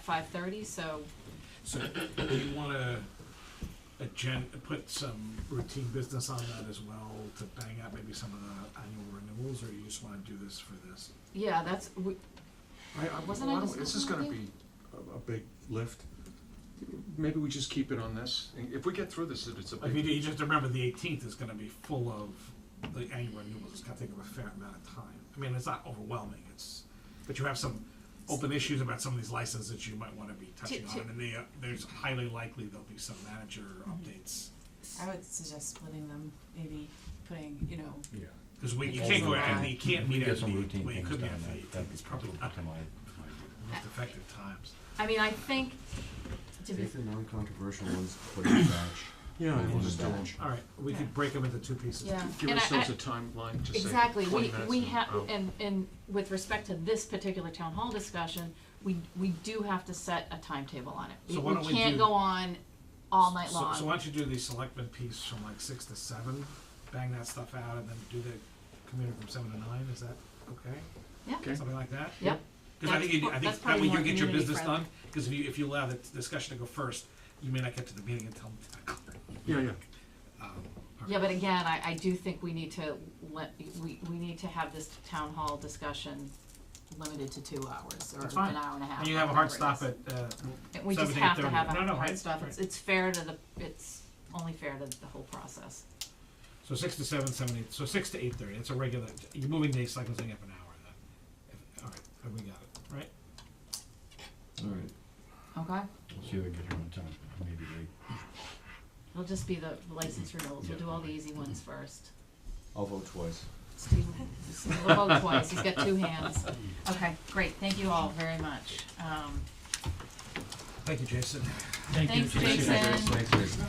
five thirty, so So, do you wanna agen, put some routine business on that as well to bang out maybe some of the annual renewals, or you just wanna do this for this? yeah, that's we, I, I, Wasn't I why don't- discussing this is gonna with be a, a big lift. Maybe we just keep it on this, if we get through this, it- it's a I mean, big, you just remember the eighteenth is gonna be full of the annual renewals, it's gonna take up a fair amount of time. I mean, it's not overwhelming, it's, but you have some open issues about some of these licenses that you might wanna be touching to- on, and they, uh, there's highly likely there'll be some manager updates. I would suggest splitting them, maybe putting, you know, Yeah. Cause we, you Because can't go of out, that. and you can't If we meet get at the, some routine well, you things could meet done, at the, that, that'd be it's probably not to my, my. most effective times. I mean, I think to be Take the non-controversial ones, put it in batch. yeah, Maybe we'll just do that. it. All right, we could break them into two pieces. yeah, Give and I- ourselves I- a timeline to say Exactly, twenty we, minutes we and have, out. and, and with respect to this particular town hall discussion, we, we do have to set a timetable on it. We- So why don't we can't do- go on all night So- So long, why don't you do the selectmen piece from like six to seven, bang that stuff out, and then do the commuter from seven to nine, is that okay? Yeah. Okay. Something like that? yep, Cause I That's think you, pro- I that's think that probably way more you get your community business friendly. done, cause if you, if you allow the discussion to go first, you may not get to the meeting until ten o'clock. Yeah, yeah, Um, yeah, but again, I, I do think we need to let, we, we need to have this town hall discussion limited to two hours or That's an fine. hour and a half. And you have a whatever hard it stop is. at, uh, And We just 7, have to 8:30. have No, a no, hard right, stop, it's, right. it's fair to the, it's only fair to the whole process, so six to seven, seven, eight, so six to eight thirty, it's a regular, you're moving the cycle thing up an hour then. If- All right, we got it, right? Alright. okay? We'll see if I get here on time, maybe late. It'll just be the license renewals, we'll Yeah. do all the easy ones first. I'll vote twice. Steve, Steve will vote twice, he's got two hands. Okay, great, thank you all very much. Um, Thank you, Jason. Thanks, Jason. Thanks, Jason.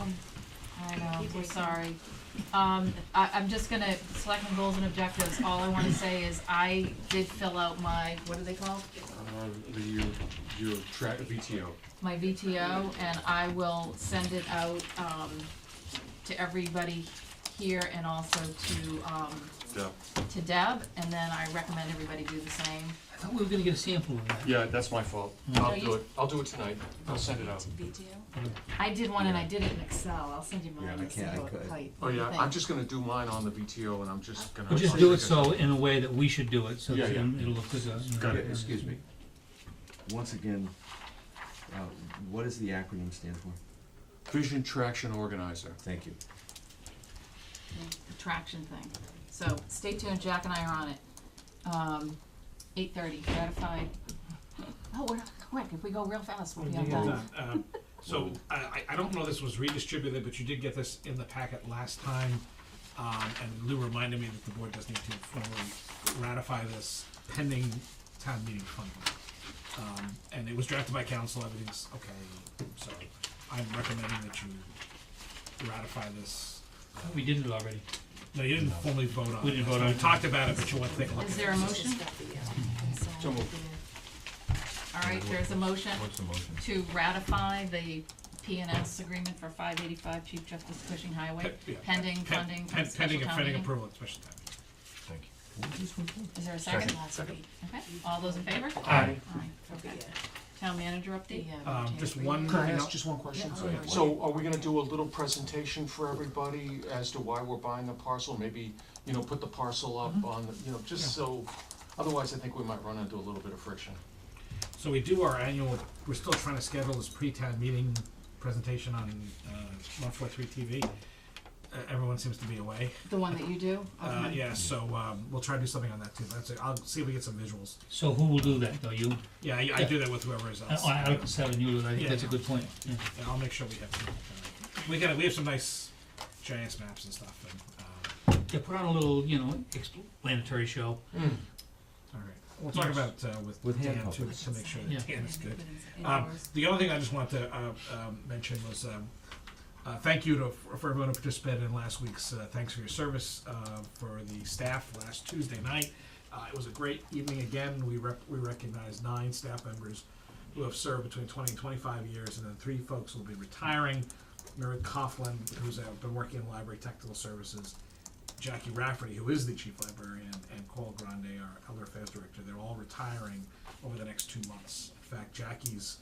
I know, we're sorry. Um, I, I'm just gonna, selectmen goals and objectives, all I wanna say is I did fill out my, what are they called? uh, the, your, your track, VTO, My VTO, and I will send it out, um, to everybody here and also to, um, yeah, to Deb, and then I recommend everybody do the same. I thought we were gonna get a sample of that. yeah, that's my fault, No, I'll you- do it, I'll do it tonight, I'll send it out. BTO. I did one and I did it in Excel, I'll send you Yeah, mine, I it's a can't- I little couldn't. tight. Oh, yeah, thing. I'm just gonna do mine on the VTO and I'm just gonna. But just do it so, in a way that we should do it, so Yeah, that yeah. it'll look good. uh, to us. Got Yeah, it. Excuse me. Once again, uh, what does the acronym stand for? Vision Traction Organizer. Thank you. The traction thing. So stay tuned, Jack and I are on it. Um, eight thirty, ratified. Oh, we're not quick, if we go real fast, we'll be on Well time. done. Um, So, I, I- I don't know if this was redistributed, but you did get this in the packet last time. Um, and Lou reminded me that the board does need to formally ratify this pending town meeting funding. Um, and it was drafted by council, everything's okay, so I'm recommending that you ratify this. We did it already. No, you didn't formally vote on it. We didn't vote on We it. talked about it, but you want to take a look at it. Is there a motion? So moved. All right, there's a motion What's the motion? to ratify the P and S agreement for five eighty-five Chief Justice Cushing Highway, Pe- yeah, pending pen- funding pen- from special Pending, town pending meeting. approval at special town meeting. Thank you. Is there a second? Second. Okay, all those in favor? Aye. All right, okay. Town manager update? Um, just one. Can I thing ask else. just one question? Yeah. Oh, yeah. So are we gonna do a little presentation for everybody as to why we're buying the parcel? Maybe, you know, put the parcel Mm-hmm. up on, the you know, just so, otherwise I think we might run into a little bit of friction. So we do our annual, we're still trying to schedule this pre-town meeting presentation on one four three TV. Uh, Everyone seems to be away. The one that you do? Uh, Okay. yeah, so um, we'll try to do something on that too. That's it. I'll see if we get some visuals. So who will do that, though, you? Yeah, I, I do that with whoever is Uh, else. on Article seven, you, do that. I think Yeah. that's a good point, yeah. Yeah, I'll make sure we have. some, uh, We got we have some nice giants maps and stuff. And, um, Yeah, put on a little, you know, explanatory show. Hmm. all right, we'll talk about uh, with, With hand Dan too puppets. to make sure that Yeah. Dan is good. Um, the other thing I just wanted to uh, um, mention was um, uh, thank you to, for everyone who participated in last week's uh, thanks for your service uh, for the staff last Tuesday night. Uh, it was a great evening again. We rep- we recognized nine staff members who have served between 20 and 25 years, and then three folks will be retiring. Mary Coughlin, who's uh, been working in library technical services, Jackie Rafferty, who is the chief librarian, and Cole Grande, our elder affairs director, they're all retiring over the next two months. In fact, Jackie's